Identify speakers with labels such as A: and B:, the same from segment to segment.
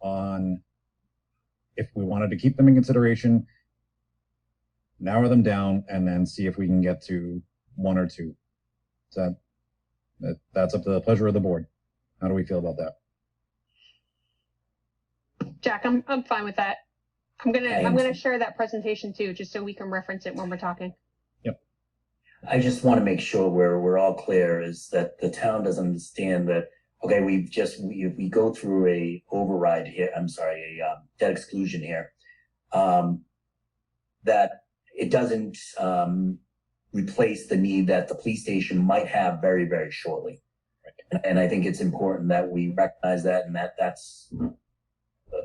A: on if we wanted to keep them in consideration, narrow them down, and then see if we can get to one or two. So that, that's up to the pleasure of the board. How do we feel about that?
B: Jack, I'm, I'm fine with that. I'm gonna,
C: Okay.
B: I'm gonna share that presentation too, just so we can reference it when we're talking.
C: I just want to make sure we're, we're all clear is that the town doesn't understand that, okay, we've just, we, we go through a override here, I'm sorry, a, um, debt exclusion here. Um, that it doesn't, um, replace the need that the police station might have very, very shortly. And, and I think it's important that we recognize that and that that's uh,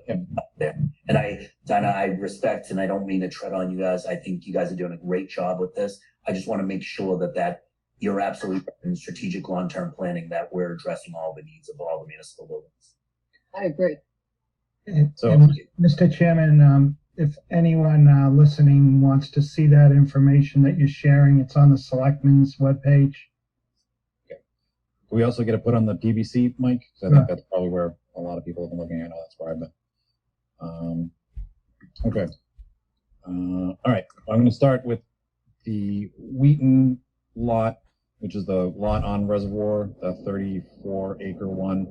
A: Yep.
C: up there. And I, Donna, I respect, and I don't mean to tread on you guys. I think you guys are doing a great job with this. I just want to make sure that that you're absolutely right in strategic long-term planning that we're addressing all the needs of all the municipal buildings.
D: I agree.
E: And-
A: So-
E: and, Mr. Chairman, um, if anyone, uh, listening wants to see that information that you're sharing, it's on the selectmen's webpage.
A: Do we also get to put on the PVC, Mike? 'Cause I
E: Sure.
A: think that's probably where a lot of people have been looking. I know that's where I've been. Um, okay. Uh, all right. Well, I'm going to start with the Wheaton lot, which is the lot on Reservoir, the 34 acre one,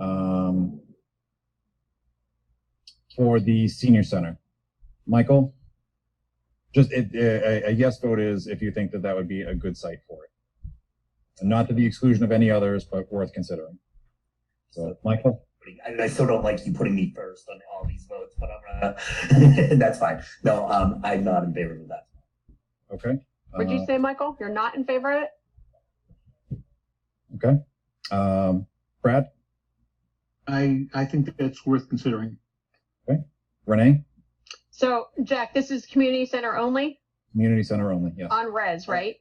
A: um, for the senior center. Michael, just it, a, a- a yes vote is if you think that that would be a good site for it not to the exclusion of any others, but worth considering. So, Michael,
C: I, I still don't like you putting me first on all these votes, but I'm gonna, that's fine. No, um, I'm not in favor of that.
A: okay?
B: What'd you say, Michael? You're not in favor of it?
A: Uh, Um, Brad,
F: I, I think that's worth considering.
A: Renee,
B: So, Jack, this is community center only
A: community center only, yes.
B: on res, right?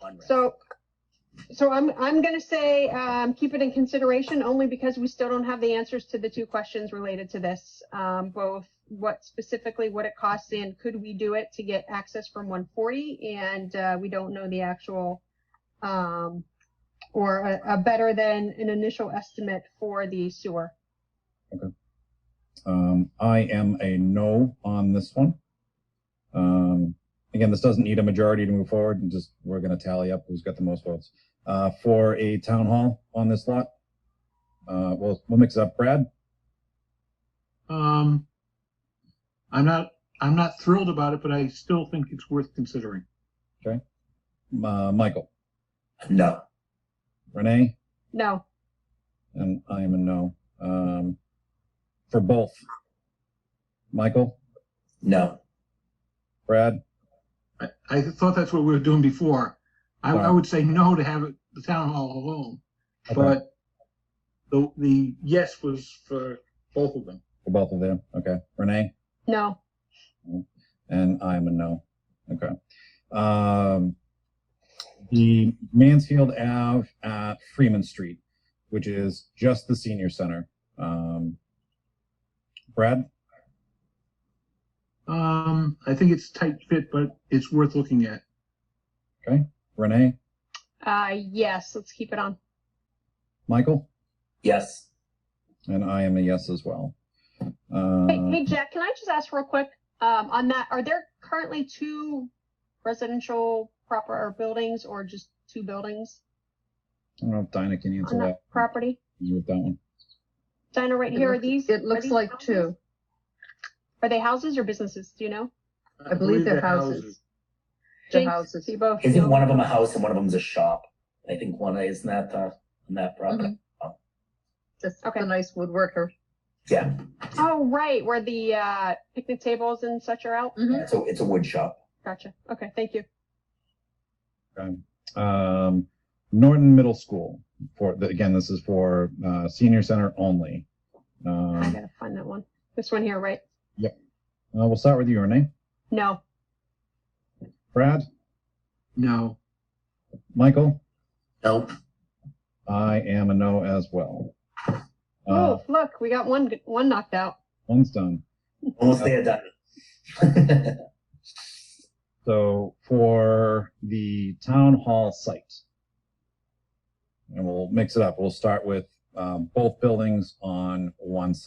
C: One rep.
B: So, so I'm, I'm gonna say, um, keep it in consideration only because we still don't have the answers to the two questions related to this. Um, both what specifically what it costs and could we do it to get access from one forty? And, uh, we don't know the actual, um, or a, a better than an initial estimate for the sewer.
A: Um, I am a no on this one. Um, again, this doesn't need a majority to move forward and just, we're gonna tally up who's got the most votes. Uh, for a town hall on this lot, uh, we'll, we'll mix it up. Brad,
F: Um, I'm not, I'm not thrilled about it, but I still think it's worth considering.
A: uh, Michael,
C: No,
A: Renee?
B: No,
A: And I am a no. Um, for both. Michael,
C: no,
A: Brad,
F: I, I thought that's what we were doing before. I, I
A: Right.
F: would say no to have it, the town hall alone,
A: Okay.
F: but the, the yes was for both of them.
A: for both of them. Okay. Renee,
B: no.
A: and I am a no. Okay. Um, the Mansfield Ave at Freeman Street, which is just the senior center. Um, Brad,
F: Um, I think it's tight fit, but it's worth looking at.
A: Renee,
B: Uh, yes, let's keep it on.
A: Michael,
C: yes,
A: and I am a yes as well. Uh,
B: Hey, hey, Jack, can I just ask real quick, um, on that, are there currently two residential proper or buildings or just two buildings
A: I don't know if Dinah can answer
B: on
A: that.
B: that property?
A: With that one.
B: Dinah, right here, are these?
D: It
B: are
D: looks
B: these
D: like
B: houses?
D: two.
B: Are they houses or businesses? Do you know?
D: I believe they're houses. They're
B: Jinx,
D: houses.
B: You both.
C: isn't
B: know.
C: one of them a house and one of them's a shop? I think one, isn't that the, on that property?
D: Just
B: Okay.
D: a nice woodworker.
C: Yeah,
B: Oh, right, where the, uh, picnic tables and such are out?
D: Mhm.
C: so it's a wood shop.
B: Gotcha. Okay, thank you.
A: Okay. Um, Norton Middle School for, the- again, this is for, uh, senior center only.
B: I
A: Um,
B: gotta find that one. This one here, right?
A: uh, we'll start with you, Renee.
B: No,
A: Brad,
F: No,
A: Michael,
C: Nope.
A: I am a no as well. Uh,
B: oh, look, we got one, one knocked out.
A: one's done.
C: Almost there, done.
A: So for the town hall site, and we'll mix it up. We'll start with, um, both buildings on one site.